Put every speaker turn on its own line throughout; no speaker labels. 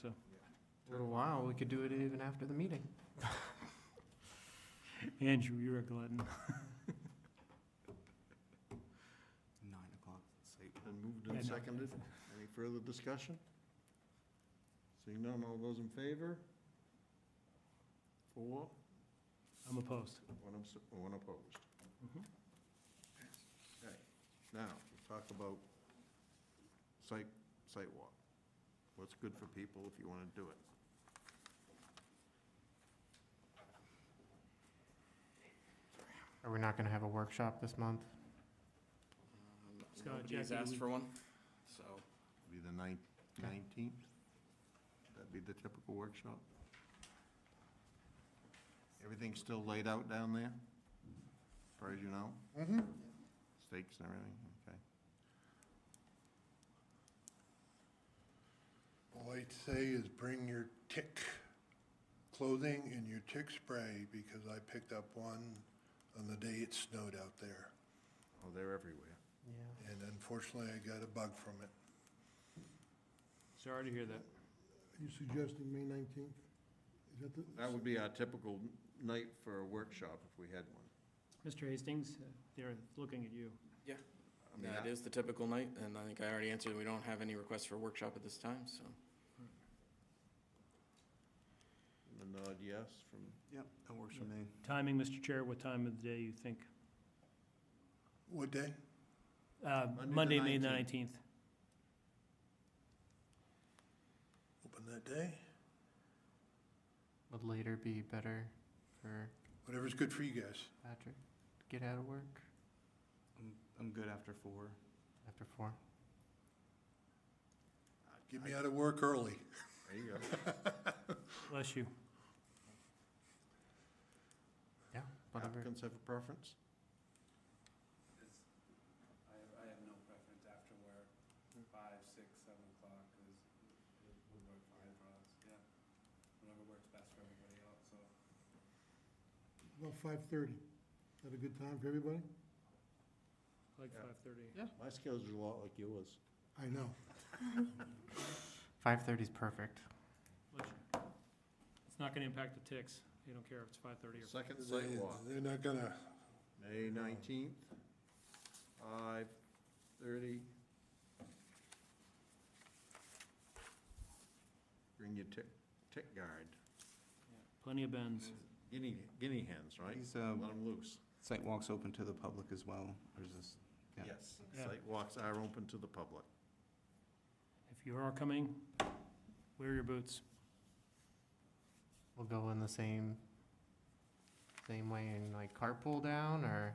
so.
Little while, we could do it even after the meeting.
Andrew, you're a glutton.
Nine o'clock, say.
Been moved
Yeah,
and
no.
seconded. Any further discussion? Seeing none, all those in favor? Four,
I'm opposed.
one abs- one opposed.
Mhm.
Okay, now, we'll talk about site, site walk. What's good for people if you want to do it?
Are we not gonna have a workshop this month?
Scott,
Nobody's
Jackie, do
Um, asked
we-
for one, so
Be the ninth,
Okay.
nineteenth? That'd be the typical workshop? Everything's still laid out down there, as far as you know?
Mm-hmm.
Steaks and everything, okay.
All I'd say is bring your tick clothing and your tick spray, because I picked up one on the day it snowed out there.
Oh, they're everywhere.
Yeah.
And unfortunately, I got a bug from it.
Sorry to hear that.
Are you suggesting May nineteenth? Is that the?
That would be our typical night for a workshop if we had one.
Mr. Hastings, uh, they're looking at you.
I mean,
that
I-
is the typical night, and I think I already answered, we don't have any requests for workshop at this time, so.
A nod yes from,
Yep, that works
for
me.
Timing, Mr. Chair, what time of the day you think?
What day?
Uh,
Monday the
Monday, May
19th.
nineteenth.
Open that day?
Would later be better for
Whatever's good for you guys.
Patrick to get out of work
I'm, I'm good after four.
after four?
Get me out of work early.
there you go.
Bless you.
Yeah, whatever.
Applicants have a preference?
I have, I have no preference after where, five, six, seven o'clock is, would work fine for us, yeah. Whatever works best for everybody else, so.
About five-thirty. Had a good time for everybody?
Like
Yeah.
five-thirty.
My schedule's a lot like yours.
I know.
Five thirty's perfect.
Bless you. It's not gonna impact the ticks. They don't care if it's five-thirty or.
Second site walk,
They're not gonna,
May nineteenth, five thirty. Bring your tick, tick guard,
Plenty of bends.
guinea, guinea hens, right?
These,
Let
um,
them loose.
site walks open to the public as well, or is this? Yeah.
Yes,
Yeah.
site walks are open to the public.
If you are coming, wear your boots.
We'll go in the same, same way and like carpool down or,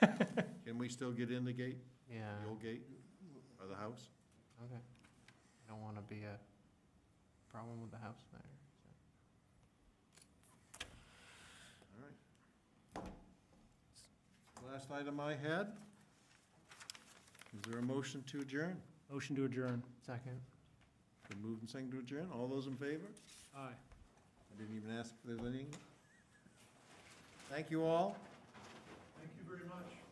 Can we still get in the gate,
yeah,
the old gate, or the house?
okay. I Don't wanna be a problem with the house there. so.
All right. Last item I had, is there a motion to adjourn?
Motion to adjourn.
Second,
Been moved and seconded to adjourn, all those in favor?
Aye.
I didn't even ask if there's any. Thank you all.
thank you very much.